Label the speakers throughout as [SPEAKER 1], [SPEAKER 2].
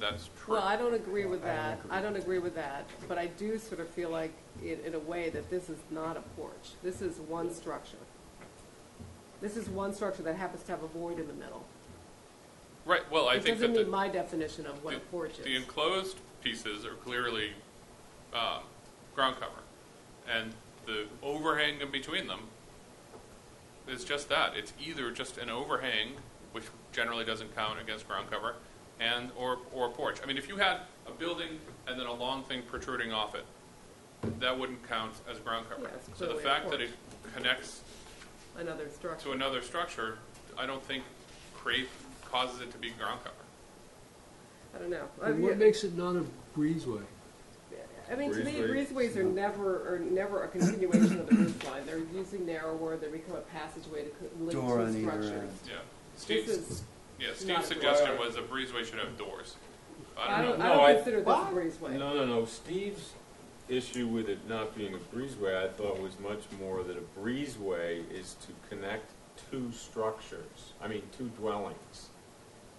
[SPEAKER 1] That's true.
[SPEAKER 2] Well, I don't agree with that, I don't agree with that, but I do sort of feel like, in, in a way, that this is not a porch. This is one structure. This is one structure that happens to have a void in the middle.
[SPEAKER 1] Right, well, I
[SPEAKER 2] It
[SPEAKER 1] think
[SPEAKER 2] doesn't
[SPEAKER 1] that the.
[SPEAKER 2] meet my definition of what a
[SPEAKER 1] the-
[SPEAKER 2] porch
[SPEAKER 1] The
[SPEAKER 2] is.
[SPEAKER 1] enclosed pieces are clearly um, ground cover, and the overhang in between them is just that. It's either just an overhang, which generally doesn't count against ground cover, and or or a porch. I mean, if you had a building and then a long thing protruding off it, that wouldn't count as ground cover.
[SPEAKER 2] Yeah, it's
[SPEAKER 1] so the
[SPEAKER 2] clearly a
[SPEAKER 1] fact that
[SPEAKER 2] porch.
[SPEAKER 1] it connects
[SPEAKER 2] Another structure.
[SPEAKER 1] to another structure, I don't think create causes it to be ground cover.
[SPEAKER 2] I don't know. I
[SPEAKER 3] And what
[SPEAKER 2] mean,
[SPEAKER 3] makes it not a breezeway?
[SPEAKER 2] I mean, to me,
[SPEAKER 4] Breezeways?
[SPEAKER 2] breezeways are never, are never a continuation of the roof line. They're usually narrower, they become a passageway to co- link
[SPEAKER 4] Door
[SPEAKER 2] two
[SPEAKER 4] on either
[SPEAKER 2] structures.
[SPEAKER 4] end.
[SPEAKER 1] Yeah. Steve's
[SPEAKER 2] This is,
[SPEAKER 1] Yeah,
[SPEAKER 2] Not a
[SPEAKER 1] Steve's suggestion
[SPEAKER 5] door.
[SPEAKER 1] was a breezeway should have doors.
[SPEAKER 2] I
[SPEAKER 1] I don't
[SPEAKER 2] don't,
[SPEAKER 1] know.
[SPEAKER 2] I
[SPEAKER 5] No, I-
[SPEAKER 2] don't consider this a
[SPEAKER 5] What?
[SPEAKER 2] breezeway.
[SPEAKER 4] No, no, no, Steve's
[SPEAKER 5] issue with it not being a breezeway, I thought was much more that a breezeway is to connect two structures, I mean, two dwellings.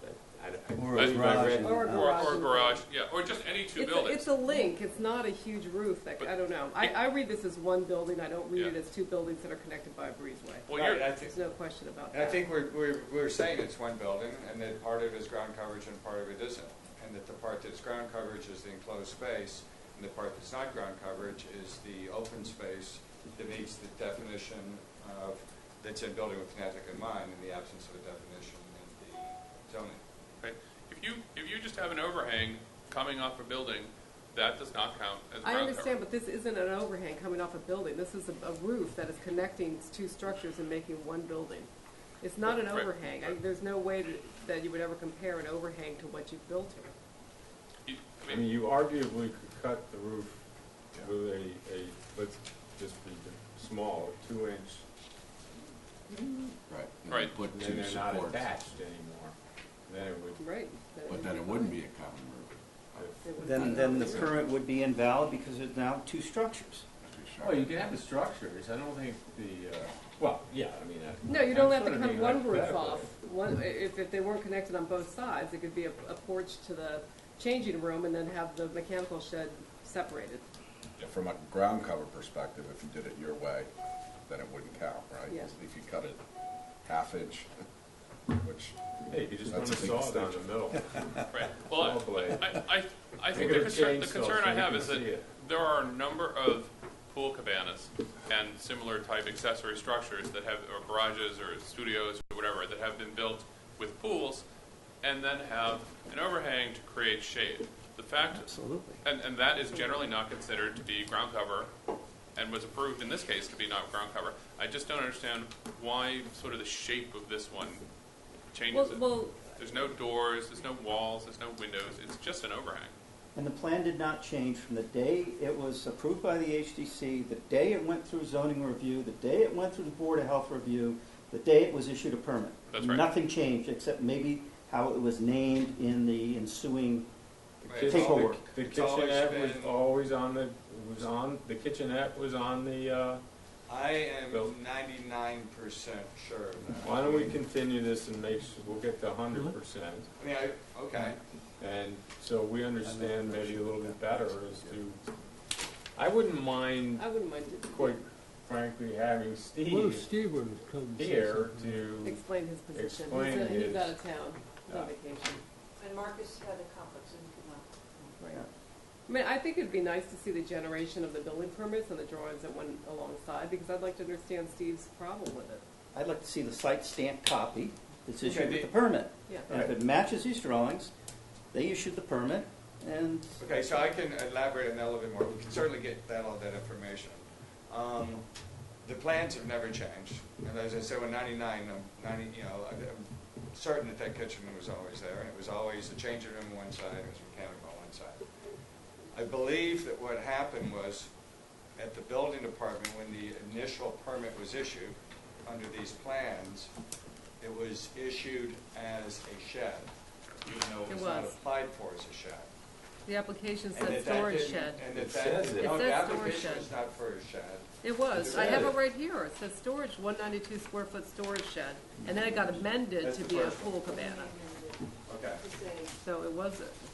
[SPEAKER 5] That- I- I-
[SPEAKER 4] Or
[SPEAKER 1] a
[SPEAKER 5] I believe I
[SPEAKER 4] garage.
[SPEAKER 5] read-
[SPEAKER 2] Or
[SPEAKER 1] Or,
[SPEAKER 2] a garage.
[SPEAKER 1] or garage, yeah, or just any two
[SPEAKER 2] It's a,
[SPEAKER 1] buildings.
[SPEAKER 2] it's a link, it's not a huge roof, that, I don't know. I, I read this as one building, I don't read it
[SPEAKER 1] Yeah.
[SPEAKER 2] as two buildings that are connected by a breezeway.
[SPEAKER 1] Well, you're,
[SPEAKER 6] Right, I think,
[SPEAKER 2] There's no question about
[SPEAKER 6] and I
[SPEAKER 2] that.
[SPEAKER 6] think we're, we're, we're saying it's one building, and that part of it is ground coverage and part of it isn't. And that the part that's ground coverage is the enclosed space, and the part that's not ground coverage is the open space that meets the definition of, that's in Building with Connecticut in mind, in the absence of a definition in the zoning.
[SPEAKER 1] right, if you, if you just have an overhang coming off a building, that does not count as
[SPEAKER 2] I
[SPEAKER 1] ground cover.
[SPEAKER 2] understand, but this isn't an overhang coming off a building, this is a, a roof that is connecting two structures and making one building. It's not an
[SPEAKER 1] Right.
[SPEAKER 2] overhang, I, there's no way to- that you would ever compare an overhang to what you've built here.
[SPEAKER 1] You-
[SPEAKER 5] I
[SPEAKER 1] I
[SPEAKER 5] mean,
[SPEAKER 1] mean,
[SPEAKER 5] you arguably could cut the roof with a, a, let's just be small, a two-inch,
[SPEAKER 7] Right. and
[SPEAKER 1] Right.
[SPEAKER 7] Put
[SPEAKER 5] and then
[SPEAKER 7] two
[SPEAKER 5] they're not
[SPEAKER 7] supports,
[SPEAKER 5] attached anymore. Then it would,
[SPEAKER 2] Right.
[SPEAKER 7] but then it wouldn't be a common roof.
[SPEAKER 2] It would
[SPEAKER 4] Then,
[SPEAKER 2] be-
[SPEAKER 4] then the permit would be invalid because there's now two structures.
[SPEAKER 5] well, Oh, you can have the structures, I don't think the, uh, well, yeah, I mean, I.
[SPEAKER 2] No, you don't
[SPEAKER 5] I'm
[SPEAKER 2] have to
[SPEAKER 5] sort of
[SPEAKER 2] cut
[SPEAKER 5] being
[SPEAKER 2] one roof
[SPEAKER 5] hypothetical.
[SPEAKER 2] off. One, if, if they weren't connected on both sides, it could be a, a porch to the changing room and then have the mechanical shed separated.
[SPEAKER 7] From a ground cover perspective, if you did it your way, then it wouldn't count, right?
[SPEAKER 2] Yeah.
[SPEAKER 7] If you cut it half inch, which,
[SPEAKER 5] Hey, you just run a
[SPEAKER 7] That's a big
[SPEAKER 5] saw down the middle.
[SPEAKER 1] right, well,
[SPEAKER 5] Saw blade.
[SPEAKER 1] I, I, I think
[SPEAKER 5] They
[SPEAKER 1] the
[SPEAKER 5] gotta
[SPEAKER 1] concern,
[SPEAKER 5] change
[SPEAKER 1] the
[SPEAKER 5] stuff
[SPEAKER 1] concern
[SPEAKER 5] so
[SPEAKER 1] I
[SPEAKER 5] you
[SPEAKER 1] have
[SPEAKER 5] can
[SPEAKER 1] is that
[SPEAKER 5] see it.
[SPEAKER 1] there are a number of pool cabanas and similar type accessory structures that have, or garages or studios or whatever, that have been built with pools and then have an overhang to create shade. The fact,
[SPEAKER 4] Absolutely.
[SPEAKER 1] and, and that is generally not considered to be ground cover and was approved in this case to be not ground cover. I just don't understand why sort of the shape of this one
[SPEAKER 2] Well,
[SPEAKER 1] changes it.
[SPEAKER 2] well,
[SPEAKER 1] There's no doors, there's no walls, there's no windows, it's just an overhang.
[SPEAKER 4] And the plan did not change from the day it was approved by the HDC, the day it went through zoning review, the day it went through the Board of Health review, the day it was issued a permit.
[SPEAKER 1] That's right.
[SPEAKER 4] Nothing changed, except maybe how it was named in the ensuing,
[SPEAKER 6] Right, it's
[SPEAKER 4] Take
[SPEAKER 6] all-
[SPEAKER 4] over.
[SPEAKER 5] The
[SPEAKER 6] It's always
[SPEAKER 5] kitchenette was
[SPEAKER 6] been-
[SPEAKER 5] always on the, was on, the kitchenette was on the, uh,
[SPEAKER 6] I
[SPEAKER 5] Bill?
[SPEAKER 6] am ninety-nine percent sure of that.
[SPEAKER 5] why don't we continue this and make, su- we'll get to hundred percent.
[SPEAKER 6] I mean, I, okay.
[SPEAKER 5] And so we understand maybe a little bit better as to, I wouldn't mind,
[SPEAKER 2] I wouldn't mind
[SPEAKER 5] quite frankly, having
[SPEAKER 3] What if
[SPEAKER 5] Steve
[SPEAKER 3] Steve were to come and say
[SPEAKER 5] here
[SPEAKER 3] something?
[SPEAKER 5] to,
[SPEAKER 2] explain his position.
[SPEAKER 5] Explain
[SPEAKER 2] He's, he's
[SPEAKER 5] his-
[SPEAKER 2] out of town, he's on
[SPEAKER 5] Yeah.
[SPEAKER 2] vacation.
[SPEAKER 8] And Marcus had a conflict and could not.
[SPEAKER 2] Right. I mean, I think it'd be nice to see the generation of the building permits and the drawings that went alongside, because I'd like to understand Steve's problem with it.
[SPEAKER 4] I'd like to see the site stamp copy that's
[SPEAKER 6] Okay,
[SPEAKER 4] issued with
[SPEAKER 6] the-
[SPEAKER 4] the permit.
[SPEAKER 2] Yeah.
[SPEAKER 4] And if it matches these drawings, they issued the permit, and
[SPEAKER 6] Okay, so I can elaborate on that a little bit more. We can certainly get that, all that information. Um, The plans have never changed, and as I said, when ninety-nine, I'm ninety, you know, I'm I'm certain that that kitchen was always there, and it was always a changing room on one side, it was mechanical on one side. I believe that what happened was, at the building department, when the initial permit was issued, under these plans, it was issued as a shed, even though it
[SPEAKER 2] It
[SPEAKER 6] was not
[SPEAKER 2] was.
[SPEAKER 6] applied for as a shed.
[SPEAKER 2] The application
[SPEAKER 6] And
[SPEAKER 2] said
[SPEAKER 6] that that
[SPEAKER 2] storage
[SPEAKER 6] didn't-
[SPEAKER 2] shed.
[SPEAKER 6] And that
[SPEAKER 5] It says
[SPEAKER 6] that,
[SPEAKER 5] it.
[SPEAKER 6] no,
[SPEAKER 2] It
[SPEAKER 6] the
[SPEAKER 2] says storage
[SPEAKER 6] application
[SPEAKER 2] shed.
[SPEAKER 6] is not for a shed.
[SPEAKER 2] It was,
[SPEAKER 5] It
[SPEAKER 2] I have
[SPEAKER 5] said
[SPEAKER 2] it
[SPEAKER 5] it.
[SPEAKER 2] right here, it says storage, one ninety-two square foot storage shed, and then it got amended
[SPEAKER 6] That's
[SPEAKER 2] to
[SPEAKER 6] the
[SPEAKER 2] be a
[SPEAKER 6] first one.
[SPEAKER 2] pool cabana,
[SPEAKER 6] Okay.
[SPEAKER 8] To say,
[SPEAKER 2] so it was